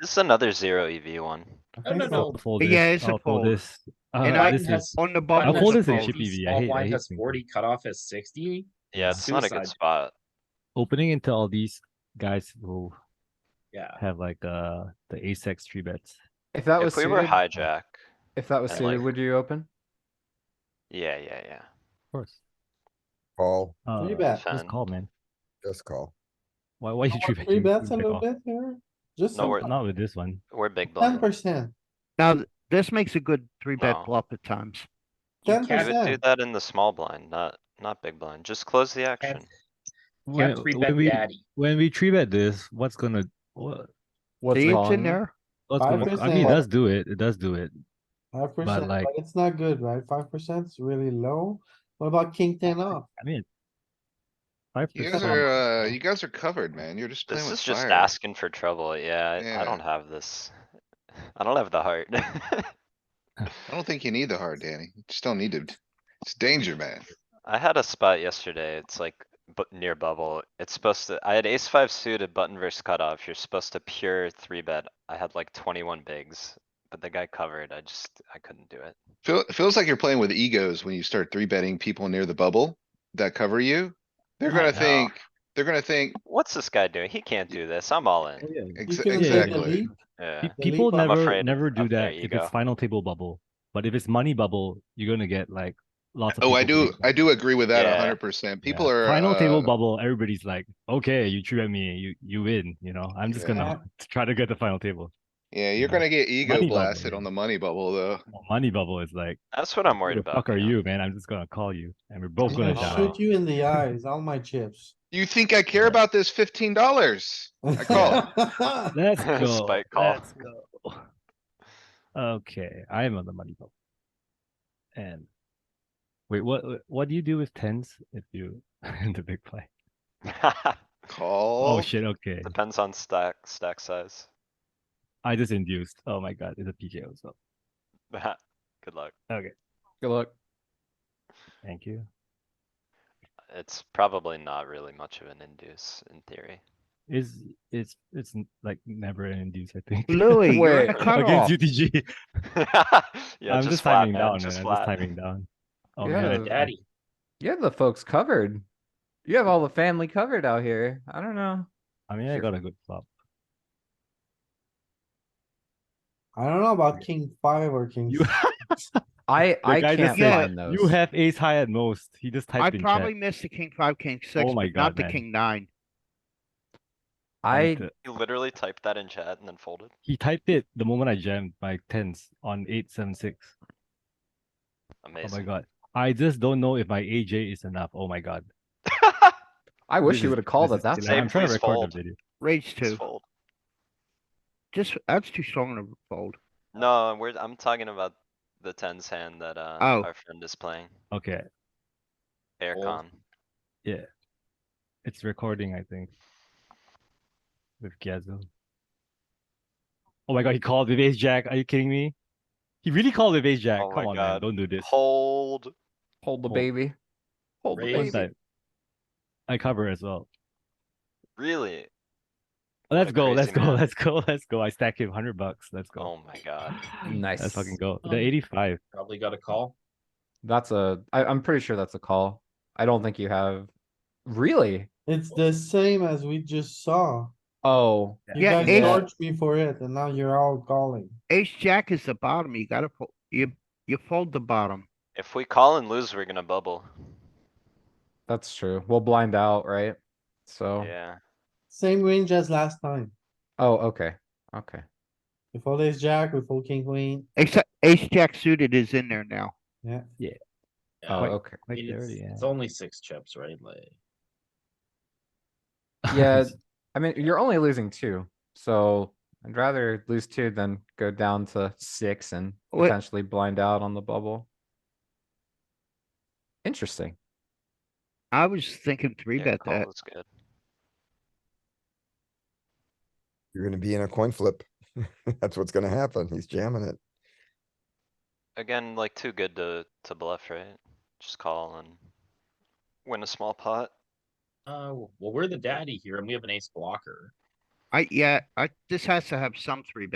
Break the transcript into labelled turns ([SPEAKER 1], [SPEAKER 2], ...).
[SPEAKER 1] This is another zero EV one.
[SPEAKER 2] I think
[SPEAKER 3] no,
[SPEAKER 2] I'll
[SPEAKER 3] no.
[SPEAKER 2] fold
[SPEAKER 4] Yeah,
[SPEAKER 2] this.
[SPEAKER 4] it's a
[SPEAKER 2] I'll
[SPEAKER 4] fold.
[SPEAKER 2] this. Uh,
[SPEAKER 4] And
[SPEAKER 2] uh,
[SPEAKER 4] I
[SPEAKER 2] this
[SPEAKER 3] has-
[SPEAKER 2] is-
[SPEAKER 4] On the
[SPEAKER 3] Button
[SPEAKER 4] bottom.
[SPEAKER 2] I'll fold
[SPEAKER 3] has
[SPEAKER 2] this in
[SPEAKER 4] fold.
[SPEAKER 2] ship EV. I
[SPEAKER 3] All
[SPEAKER 2] hate- I
[SPEAKER 3] blind
[SPEAKER 2] hate
[SPEAKER 3] has
[SPEAKER 2] things.
[SPEAKER 3] forty, cutoff is sixty.
[SPEAKER 1] Yeah, it's not a good
[SPEAKER 3] Suicide.
[SPEAKER 1] spot.
[SPEAKER 2] opening into all these guys who
[SPEAKER 3] Yeah,
[SPEAKER 2] have like uh the ace x three bets.
[SPEAKER 5] If that was
[SPEAKER 1] If we were
[SPEAKER 5] suited,
[SPEAKER 1] hijack,
[SPEAKER 5] if that was
[SPEAKER 1] I'd
[SPEAKER 5] suited,
[SPEAKER 1] like-
[SPEAKER 5] would you open?
[SPEAKER 1] yeah, yeah,
[SPEAKER 2] Of course.
[SPEAKER 6] Call,
[SPEAKER 2] Uh,
[SPEAKER 7] Three bet.
[SPEAKER 2] Just call, man.
[SPEAKER 6] just call.
[SPEAKER 2] Why? Why you three bet?
[SPEAKER 7] Three
[SPEAKER 2] You-
[SPEAKER 7] bets
[SPEAKER 2] you
[SPEAKER 7] a
[SPEAKER 2] pick
[SPEAKER 7] little
[SPEAKER 2] off.
[SPEAKER 7] bit here, just
[SPEAKER 1] No, we're-
[SPEAKER 2] Not with this one.
[SPEAKER 1] we're big
[SPEAKER 7] ten
[SPEAKER 1] blind.
[SPEAKER 7] percent,
[SPEAKER 4] Now, th- this makes a good three bet
[SPEAKER 1] No.
[SPEAKER 4] flop at times.
[SPEAKER 7] ten
[SPEAKER 1] You would do
[SPEAKER 7] percent.
[SPEAKER 1] that in the small blind, not, not big blind. Just close the action.
[SPEAKER 2] When,
[SPEAKER 3] can't three bet
[SPEAKER 2] when we
[SPEAKER 3] daddy.
[SPEAKER 2] when we three bet this, what's gonna what? What's
[SPEAKER 4] See, it's in
[SPEAKER 2] wrong?
[SPEAKER 4] there.
[SPEAKER 2] What's gonna, I mean, it
[SPEAKER 7] 5%.
[SPEAKER 2] does do it. It does do it.
[SPEAKER 7] Five percent,
[SPEAKER 2] like-
[SPEAKER 7] but it's not good, right? Five percent is really low. What about king ten off?
[SPEAKER 2] I mean, five
[SPEAKER 8] You
[SPEAKER 2] percent.
[SPEAKER 8] guys
[SPEAKER 2] Oh.
[SPEAKER 8] are, uh, you guys are covered, man. You're just playing
[SPEAKER 1] This
[SPEAKER 8] with
[SPEAKER 1] is just
[SPEAKER 8] fire.
[SPEAKER 1] asking for trouble. Yeah, I-
[SPEAKER 8] Yeah.
[SPEAKER 1] I don't have this. I don't have the heart.
[SPEAKER 8] I don't think you need the heart, Danny. You just don't need to. It's danger, man.
[SPEAKER 1] I had a spot yesterday. It's like bu- near bubble. It's supposed to, I had ace five suited button versus cutoff. You're supposed to pure three bet. I had like twenty-one bigs, but the guy covered. I just, I couldn't do it.
[SPEAKER 8] Feel, it feels like you're playing with egos when you start three betting people near the bubble that cover you. They're
[SPEAKER 1] I
[SPEAKER 8] gonna
[SPEAKER 1] know.
[SPEAKER 8] think, they're gonna think,
[SPEAKER 1] What's this guy doing? He can't do this. I'm all in.
[SPEAKER 7] You
[SPEAKER 8] ex-
[SPEAKER 7] couldn't take a
[SPEAKER 8] exactly.
[SPEAKER 7] lead?
[SPEAKER 1] Yeah.
[SPEAKER 2] Pe- People
[SPEAKER 7] leap up. I'm
[SPEAKER 2] never
[SPEAKER 1] afraid
[SPEAKER 2] never
[SPEAKER 1] of
[SPEAKER 2] do
[SPEAKER 1] their
[SPEAKER 2] that if it's
[SPEAKER 1] ego.
[SPEAKER 2] final table bubble. But if it's money bubble, you're gonna get like lots of.
[SPEAKER 8] Oh, I
[SPEAKER 2] people
[SPEAKER 8] do,
[SPEAKER 2] doing that.
[SPEAKER 8] I do agree with that
[SPEAKER 1] Yeah.
[SPEAKER 8] a hundred percent.
[SPEAKER 2] Yeah.
[SPEAKER 8] People are,
[SPEAKER 2] final table
[SPEAKER 8] uh,
[SPEAKER 2] bubble. Everybody's like, okay, you treat me, you you win. You know, I'm just gonna try to get the final table.
[SPEAKER 8] yeah, you're
[SPEAKER 2] yeah.
[SPEAKER 8] gonna get ego
[SPEAKER 2] Money bubble,
[SPEAKER 8] blasted
[SPEAKER 2] yeah.
[SPEAKER 8] on the money bubble, though.
[SPEAKER 2] Money bubble is like,
[SPEAKER 1] That's what I'm
[SPEAKER 2] who
[SPEAKER 1] worried
[SPEAKER 2] the
[SPEAKER 1] about.
[SPEAKER 2] fuck are
[SPEAKER 1] know?
[SPEAKER 2] you, man? I'm just gonna call you, and we're both
[SPEAKER 7] I'm
[SPEAKER 2] Oh, gonna
[SPEAKER 7] gonna
[SPEAKER 2] die.
[SPEAKER 7] Shoot you in the eyes, all my chips.
[SPEAKER 8] You think I care
[SPEAKER 2] Yeah.
[SPEAKER 8] about this fifteen dollars? I call.
[SPEAKER 2] Let's go.
[SPEAKER 1] Spike call.
[SPEAKER 2] Let's go. Okay, I am on the money bubble. And wait, what what do you do with tens if you in the big play?
[SPEAKER 8] Call.
[SPEAKER 2] Oh shit, okay.
[SPEAKER 1] Depends on stack, stack size.
[SPEAKER 2] I just induced. Oh my god, it's a PKO so
[SPEAKER 1] Good luck.
[SPEAKER 5] Good luck.
[SPEAKER 2] thank you.
[SPEAKER 1] It's probably not really much of an induce in theory.
[SPEAKER 2] Is it's it's n- like never an induce, I think.
[SPEAKER 4] Louis, you're in
[SPEAKER 5] Wait.
[SPEAKER 4] a
[SPEAKER 2] Against
[SPEAKER 4] cutoff.
[SPEAKER 2] UTG.
[SPEAKER 1] Yeah,
[SPEAKER 2] I'm just
[SPEAKER 1] just flat,
[SPEAKER 2] timing
[SPEAKER 1] man,
[SPEAKER 2] down, man.
[SPEAKER 1] just
[SPEAKER 2] I'm just
[SPEAKER 1] flat.
[SPEAKER 2] timing down. Oh
[SPEAKER 5] Yeah.
[SPEAKER 2] man, I-
[SPEAKER 3] Daddy,
[SPEAKER 5] You have the folks covered. You have all the family covered out here. I don't know.
[SPEAKER 2] I mean I
[SPEAKER 5] Sure.
[SPEAKER 2] got a good flop.
[SPEAKER 7] I don't know about king five or king.
[SPEAKER 2] You-
[SPEAKER 7] six.
[SPEAKER 5] I
[SPEAKER 2] The
[SPEAKER 5] I
[SPEAKER 2] guy just
[SPEAKER 5] can't
[SPEAKER 2] said,
[SPEAKER 5] find those.
[SPEAKER 2] You have ace high at most. He just
[SPEAKER 4] I
[SPEAKER 2] typed in chat. Oh
[SPEAKER 4] probably missed the king five, king six,
[SPEAKER 2] my
[SPEAKER 4] but not
[SPEAKER 2] God,
[SPEAKER 4] the
[SPEAKER 2] man.
[SPEAKER 4] king nine.
[SPEAKER 5] I
[SPEAKER 2] Like, uh,
[SPEAKER 1] You literally typed that in chat and then folded.
[SPEAKER 2] He typed it the moment I jammed my tens on eight seven six. Oh my
[SPEAKER 1] Amazing.
[SPEAKER 2] god. I just don't know if my AJ is enough. Oh my god.
[SPEAKER 5] I
[SPEAKER 2] This
[SPEAKER 5] wish
[SPEAKER 2] is-
[SPEAKER 5] you would have called
[SPEAKER 2] this
[SPEAKER 5] it.
[SPEAKER 2] is
[SPEAKER 5] That's
[SPEAKER 2] delightful. I'm
[SPEAKER 1] Save,
[SPEAKER 2] trying to
[SPEAKER 1] please
[SPEAKER 2] record
[SPEAKER 1] fold.
[SPEAKER 2] the video.
[SPEAKER 4] Raise
[SPEAKER 1] Just
[SPEAKER 4] two.
[SPEAKER 1] fold.
[SPEAKER 4] Just, that's too strong to fold.
[SPEAKER 1] No, we're, I'm talking about the tens hand that, uh,
[SPEAKER 4] Oh.
[SPEAKER 1] our friend is playing,
[SPEAKER 2] Okay,
[SPEAKER 1] air
[SPEAKER 3] Fold.
[SPEAKER 1] con.
[SPEAKER 2] it's recording, I think. With Gazzo. Oh my god, he called with ace jack. Are you kidding me? He really called with ace jack.
[SPEAKER 1] Oh my
[SPEAKER 2] Come on,
[SPEAKER 1] God.
[SPEAKER 2] man. Don't do this.
[SPEAKER 1] Hold.
[SPEAKER 5] hold the
[SPEAKER 2] Hold.
[SPEAKER 5] baby. Hold the
[SPEAKER 3] Raise.
[SPEAKER 2] One
[SPEAKER 5] baby.
[SPEAKER 2] time. I cover as well.
[SPEAKER 1] Really?
[SPEAKER 2] Let's
[SPEAKER 1] a
[SPEAKER 2] go, let's
[SPEAKER 1] crazy
[SPEAKER 2] go,
[SPEAKER 1] man.
[SPEAKER 2] let's go, let's go. I stack him hundred bucks. Let's go.
[SPEAKER 1] Oh my god.
[SPEAKER 2] Let's
[SPEAKER 5] Nice.
[SPEAKER 2] fucking go.
[SPEAKER 3] Um,
[SPEAKER 2] The eighty-five.
[SPEAKER 3] probably got a call.
[SPEAKER 5] That's a. I, I'm pretty sure that's a call. I don't think you have. Really?
[SPEAKER 7] It's the same as we just saw.
[SPEAKER 5] Oh,
[SPEAKER 7] You
[SPEAKER 4] Yeah,
[SPEAKER 7] guys
[SPEAKER 4] ace-
[SPEAKER 7] charged me for it and now you're all calling.
[SPEAKER 4] Ace jack is the bottom. You gotta, fo- you, you fold the bottom.
[SPEAKER 1] If we call and lose, we're gonna bubble.
[SPEAKER 5] that's true. We'll blind out, right?
[SPEAKER 2] Oh.
[SPEAKER 5] So.
[SPEAKER 1] Yeah.
[SPEAKER 7] Same range as last time.
[SPEAKER 5] Oh, okay. Okay.
[SPEAKER 7] We fold ace jack, we fold king queen,
[SPEAKER 4] Except ace jack suited is in there now.
[SPEAKER 7] yeah.
[SPEAKER 3] Yeah,
[SPEAKER 5] Oh,
[SPEAKER 3] I mean,
[SPEAKER 5] okay.
[SPEAKER 2] Like
[SPEAKER 3] it's-
[SPEAKER 2] dirty, yeah.
[SPEAKER 3] It's only six chips, right? Like.
[SPEAKER 5] Yeah, I mean, you're only losing two, so I'd rather lose two than go down to six and
[SPEAKER 4] Wait.
[SPEAKER 5] potentially blind out on the bubble. Interesting.
[SPEAKER 4] I was thinking three
[SPEAKER 1] Yeah,
[SPEAKER 4] bet
[SPEAKER 1] call
[SPEAKER 4] that.
[SPEAKER 1] is good.
[SPEAKER 6] You're gonna be in a coin flip. That's what's gonna happen. He's jamming it.
[SPEAKER 1] Again, like too good to, to bluff, right? Just call and win a small pot.
[SPEAKER 3] Uh, well, we're the daddy here and we have an ace blocker.
[SPEAKER 4] I, yeah, I, this has to have some three bet.